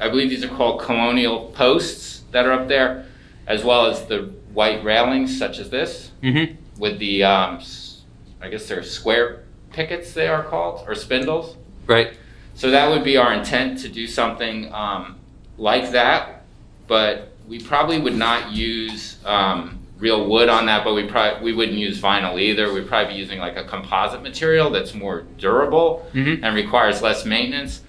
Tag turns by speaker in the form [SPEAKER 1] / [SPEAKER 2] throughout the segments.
[SPEAKER 1] I believe these are called colonial posts that are up there, as well as the white railings such as this
[SPEAKER 2] Mm-hmm.
[SPEAKER 1] with the, um, s- I guess they're square pickets they are called, or spindles.
[SPEAKER 2] Right.
[SPEAKER 1] So that would be our intent to do something um, like that, but we probably would not use um, real wood on that, but we probably, we wouldn't use vinyl either. We'd probably be using like a composite material that's more durable
[SPEAKER 2] Mm-hmm.
[SPEAKER 1] and requires less maintenance,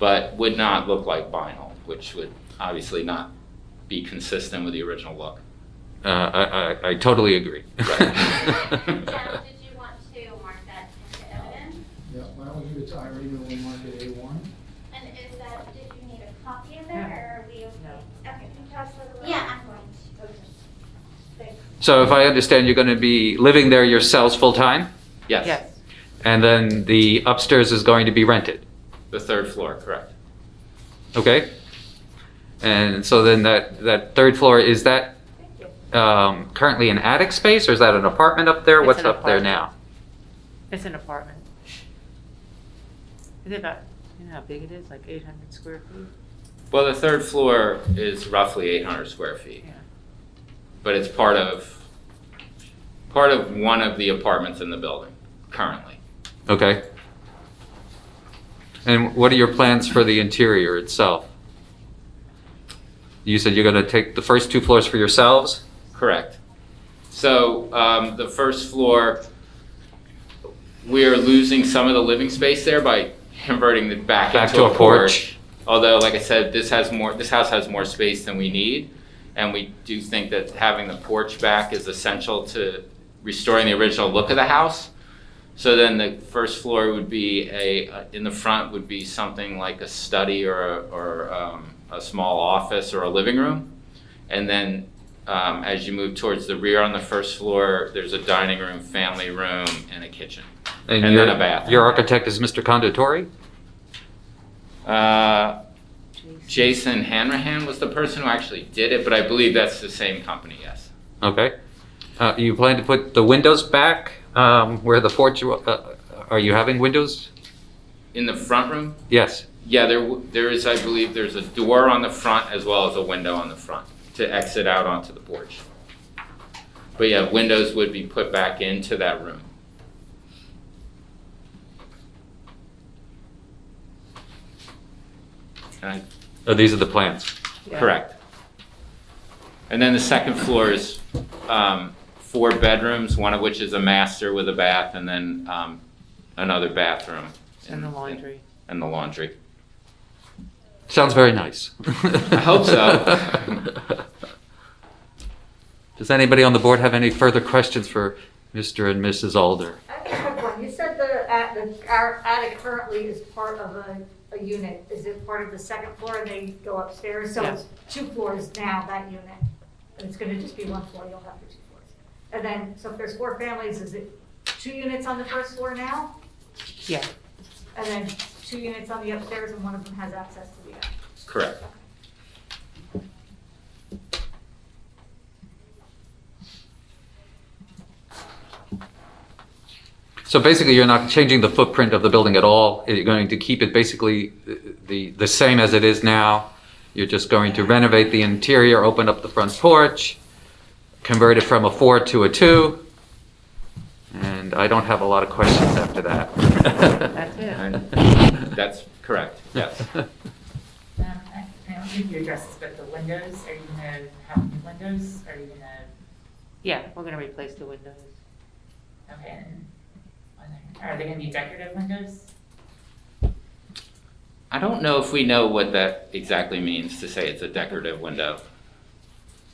[SPEAKER 1] but would not look like vinyl, which would obviously not be consistent with the original look.
[SPEAKER 2] Uh, I, I, I totally agree.
[SPEAKER 3] Carol, did you want to mark that into evidence?
[SPEAKER 4] Yeah, why don't we give it to Irene and we'll mark it A one?
[SPEAKER 3] And is that, did you need a copy of that, or are we?
[SPEAKER 5] No.
[SPEAKER 3] Okay. Yeah, I'm going to.
[SPEAKER 2] so, if I understand, you're going to be living there yourselves full time,
[SPEAKER 1] Yes,
[SPEAKER 2] and then the upstairs is going to be rented.
[SPEAKER 1] the third floor, correct.
[SPEAKER 2] Okay. And so then that that third floor is that um, currently an attic space, or is that an apartment up there?
[SPEAKER 5] It's
[SPEAKER 2] What's
[SPEAKER 5] an
[SPEAKER 2] up there
[SPEAKER 5] apartment.
[SPEAKER 2] now?
[SPEAKER 5] It's an apartment. Is it about, you know how big it is, like eight hundred square feet?
[SPEAKER 1] Well, the third floor is roughly 800 square feet.
[SPEAKER 5] Yeah.
[SPEAKER 1] but it's part of, part of one of the apartments in the building currently.
[SPEAKER 2] Okay. And what are your plans for the interior itself? You said you're going to take the first two floors for yourselves.
[SPEAKER 1] Correct. So um, the first floor, we are losing some of the living space there by converting it back
[SPEAKER 2] Back
[SPEAKER 1] into
[SPEAKER 2] to a porch.
[SPEAKER 1] Although, like I said, this has more, this house has more space than we need. And we do think that having the porch back is essential to restoring the original look of the house. So then the first floor would be a, uh, in the front would be something like a study or, a- or um, a small office or a living room. And then um, as you move towards the rear on the first floor, there's a dining room, family room, and a kitchen. And
[SPEAKER 2] your-
[SPEAKER 1] then a bathroom.
[SPEAKER 2] Your architect is Mr. Conditori?
[SPEAKER 1] Uh, Jason Hanrahan was the person who actually did it, but I believe that's the same company, yes.
[SPEAKER 2] Okay. Uh, you plan to put the windows back um, where the porch, wa- uh, are you having windows?
[SPEAKER 1] In the front room?
[SPEAKER 2] Yes.
[SPEAKER 1] Yeah, there, w- there is, I believe, there's a door on the front as well as a window on the front to exit out onto the porch. But yeah, windows would be put back into that room. And I
[SPEAKER 2] Oh, these are the plans.
[SPEAKER 1] Correct. And then the second floor is um, four bedrooms, one of which is a master with a bath, and then um, another bathroom.
[SPEAKER 5] And the laundry.
[SPEAKER 1] And the laundry.
[SPEAKER 2] Sounds very nice.
[SPEAKER 1] I hope so.
[SPEAKER 2] Does anybody on the board have any further questions for Mr. and Mrs. Alder?
[SPEAKER 6] I have a quick one. You said the, at- the- our attic currently is part of a, a unit. Is it part of the second floor and they go upstairs? So it's two floors now, that unit. And it's gonna just be one floor, you'll have the two floors. And then, so if there's four families, is it two units on the first floor now?
[SPEAKER 5] Yeah,
[SPEAKER 6] And then two units on the upstairs and one of them has access to the attic?
[SPEAKER 1] Correct.
[SPEAKER 2] So basically, you're not changing the footprint of the building at all. You're going to keep it basically the, the same as it is now. You're just going to renovate the interior, open up the front porch, convert it from a four to a two. And I don't have a lot of questions after that.
[SPEAKER 5] that's it.
[SPEAKER 1] And That's correct, yes.
[SPEAKER 7] Um, I I don't think you addressed this, but the windows, are you gonna have new windows? Are you gonna,
[SPEAKER 5] Yeah, we're gonna replace the windows.
[SPEAKER 7] okay, and are they gonna be decorative windows?
[SPEAKER 1] I don't know if we know what that exactly means to say it's a decorative window.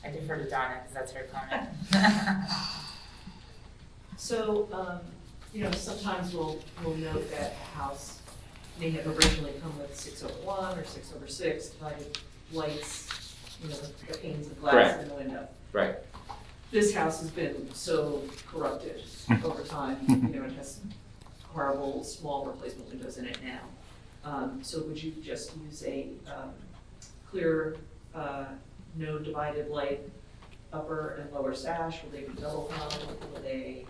[SPEAKER 7] I defer to Donna, because that's her comment.
[SPEAKER 8] So, um, you know, sometimes we'll, we'll note that a house may have originally come with six over one or six over six divided lights, you know, the- the panes of glass
[SPEAKER 1] Correct.
[SPEAKER 8] in the window.
[SPEAKER 1] Right.
[SPEAKER 8] This house has been so corrupted over time, you know, it has horrible small replacement windows in it now. Um, so would you just use a, um, clear, uh, no divided light upper and lower sash? Will they be double hung? Will they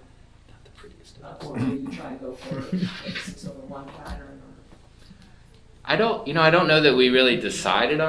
[SPEAKER 8] uh, Or do you try and go for like a six over one pattern or?
[SPEAKER 1] I don't, you know, I don't know that we really decided on.